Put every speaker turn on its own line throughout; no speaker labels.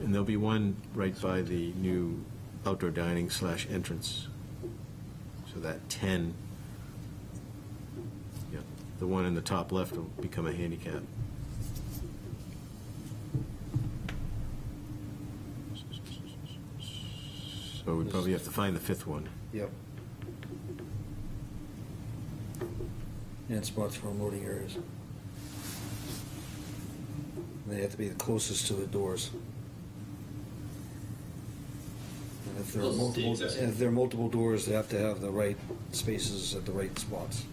And there'll be one right by the new outdoor dining slash entrance. So that 10, yeah, the one in the top left will become a handicap. So we probably have to find the fifth one.
Yep. And spots for loading areas. They have to be the closest to the doors. And if there are
Those are the
multiple,
exact-
and if there are multiple doors, they have to have the right spaces at the right spots.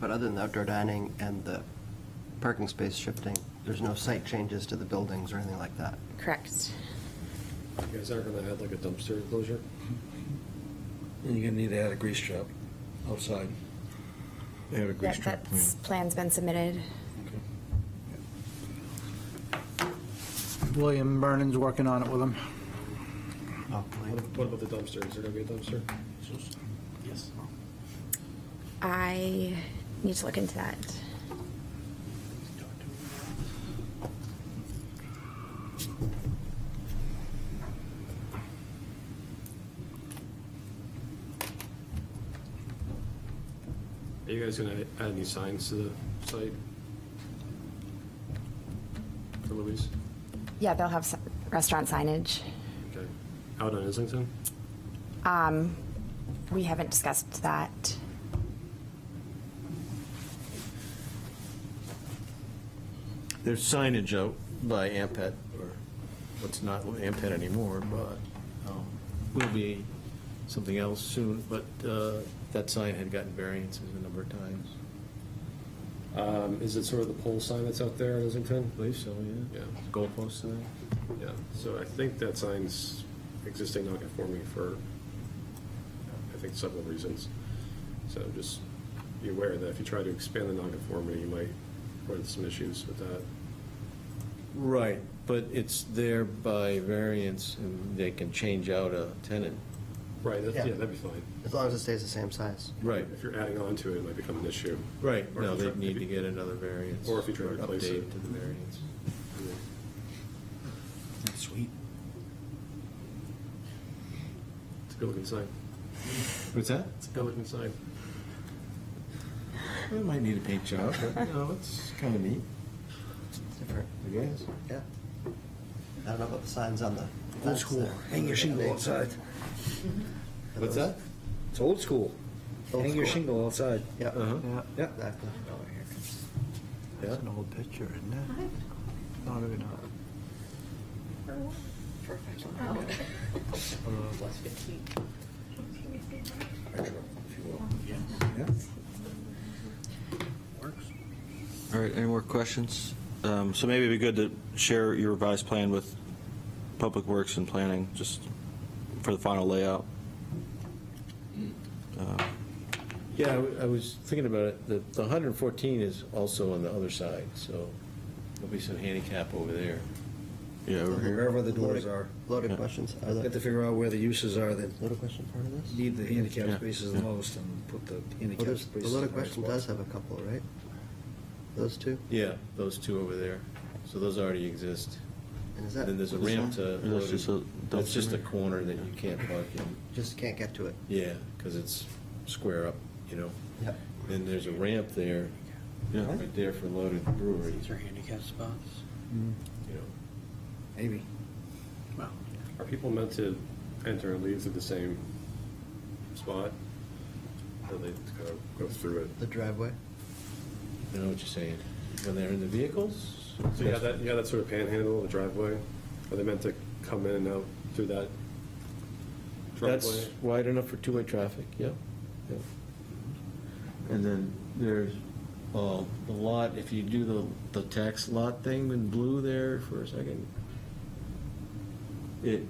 But other than the outdoor dining and the parking space shifting, there's no site changes to the buildings or anything like that.
Correct.
You guys aren't gonna have like a dumpster enclosure?
And you're gonna need to add a grease trap outside.
They have a grease
That,
trap plan.
that's, plan's been submitted.
William Vernon's working on it with him.
What what about the dumpster? Is there gonna be a dumpster?
Yes.
I need to look into that.
Are you guys gonna add any signs to the site? For Louise?
Yeah, they'll have some restaurant signage.
Okay. Out on Islington?
Um, We haven't discussed that.
There's signage out by Ampet, or what's not Ampet anymore, but um, will be something else soon, but uh, that sign had gotten variances a number of times.
Um, is it sort of the pole sign that's out there in Islington?
I believe so, yeah.
Yeah.
Goalpost sign.
Yeah, so I think that sign's existing non-conforming for, I think, several reasons. So just be aware that if you try to expand the non-conformity, you might run into some issues with that.
Right, but it's there by variance, and they can change out a tenant.
Right, that's, yeah,
Yeah.
that'd be fine.
As long as it stays the same size.
Right,
If you're adding on to it, it might become an issue.
right,
Or
no,
if you
they'd
try-
need
if
to
you-
get another variance.
Or if you try to
or
replace it.
Update to the variance.
Sweet.
It's a good-looking sign.
What's that?
It's a good-looking sign.
It might need a paint job, but, no, it's kind of neat,
It's different.
I guess.
Yeah. I don't know about the signs on the.
Old
fence
school,
there.
hang your shingle outside.
What's that?
It's old school.
Old
Hang your
school.
shingle outside.
Yeah,
Uh-huh.
Yeah,
Yeah.
exactly.
Yeah.
that's an old picture, isn't it? Not even,
All right, any more questions? Um, So maybe it'd be good to share your revised plan with Public Works and Planning, just for the final layout. Um,
Yeah, I w- I was thinking about it, the the 114 is also on the other side, so there'll be some handicap over there.
Yeah, over here.
Wherever the doors
Loaded-
are.
Loaded questions. Are
Got to
the
figure out where the uses are that
loaded question part of this?
need the handicap
Yeah,
spaces the
yeah.
most and put the
Well,
handicap
there's-
spaces.
The loaded
in the right
question
spots.
does have a couple, right? Those two?
Yeah, those two over there. So those already exist.
And is that?
Then there's a
this
ramp
one?
to,
And that's just a dumpster
that's just a
there?
corner that you can't park in.
Just can't get to it.
Yeah, because it's square up, you know?
Yep.
Then there's a ramp there,
Yeah.
right there for loaded brewery,
These are handicap spots.
you know?
Maybe.
Wow.
Are people meant to enter and leave through the same spot? Or they kind of go through it?
The driveway?
I know what you're saying. When they're in the vehicles?
So you have that, you have that sort of panhandle, the driveway? Are they meant to come in and out through that
That's
driveway?
wide enough for two-way traffic, yep, yep. And then there's, uh, the lot, if you do the, the tax lot thing in blue there for a second, it,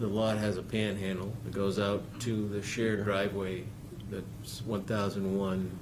the lot has a panhandle that goes out to the shared driveway that's one thousand one